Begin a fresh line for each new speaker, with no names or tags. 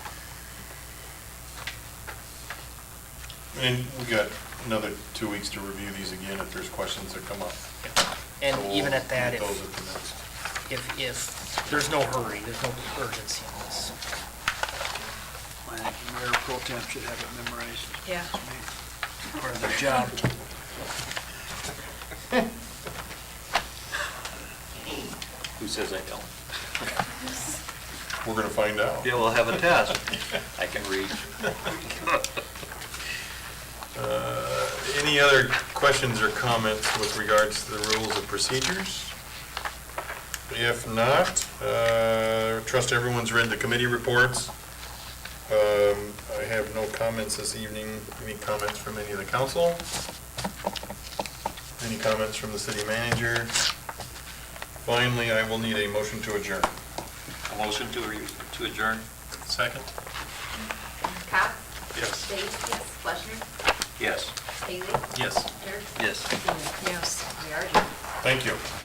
And we got another two weeks to review these again if there's questions that come up.
And
So we'll
even at that,
meet
if,
Oh, Those at the next.
if, if, there's no hurry, there's no urgency in this.
I think the mayor pro temp should have it memorized.
Yeah.
Part of their job.
Who says I don't?
We're going to find out.
Yeah, we'll have a test. I can read.
Uh, Any other questions or comments with regards to the rules of procedures? If not, uh, trust everyone's read the committee reports. Um, I have no comments this evening. Any comments from any of the council? Any comments from the city manager? Finally, I will need a motion to adjourn.
A motion to re- to adjourn?
Second?
Cop?
Yes.
Dave? Yes. Fleischner?
Yes.
Haley?
Yes.
Dirk?
Yes.
Yes. We are. adjourned.
Thank you.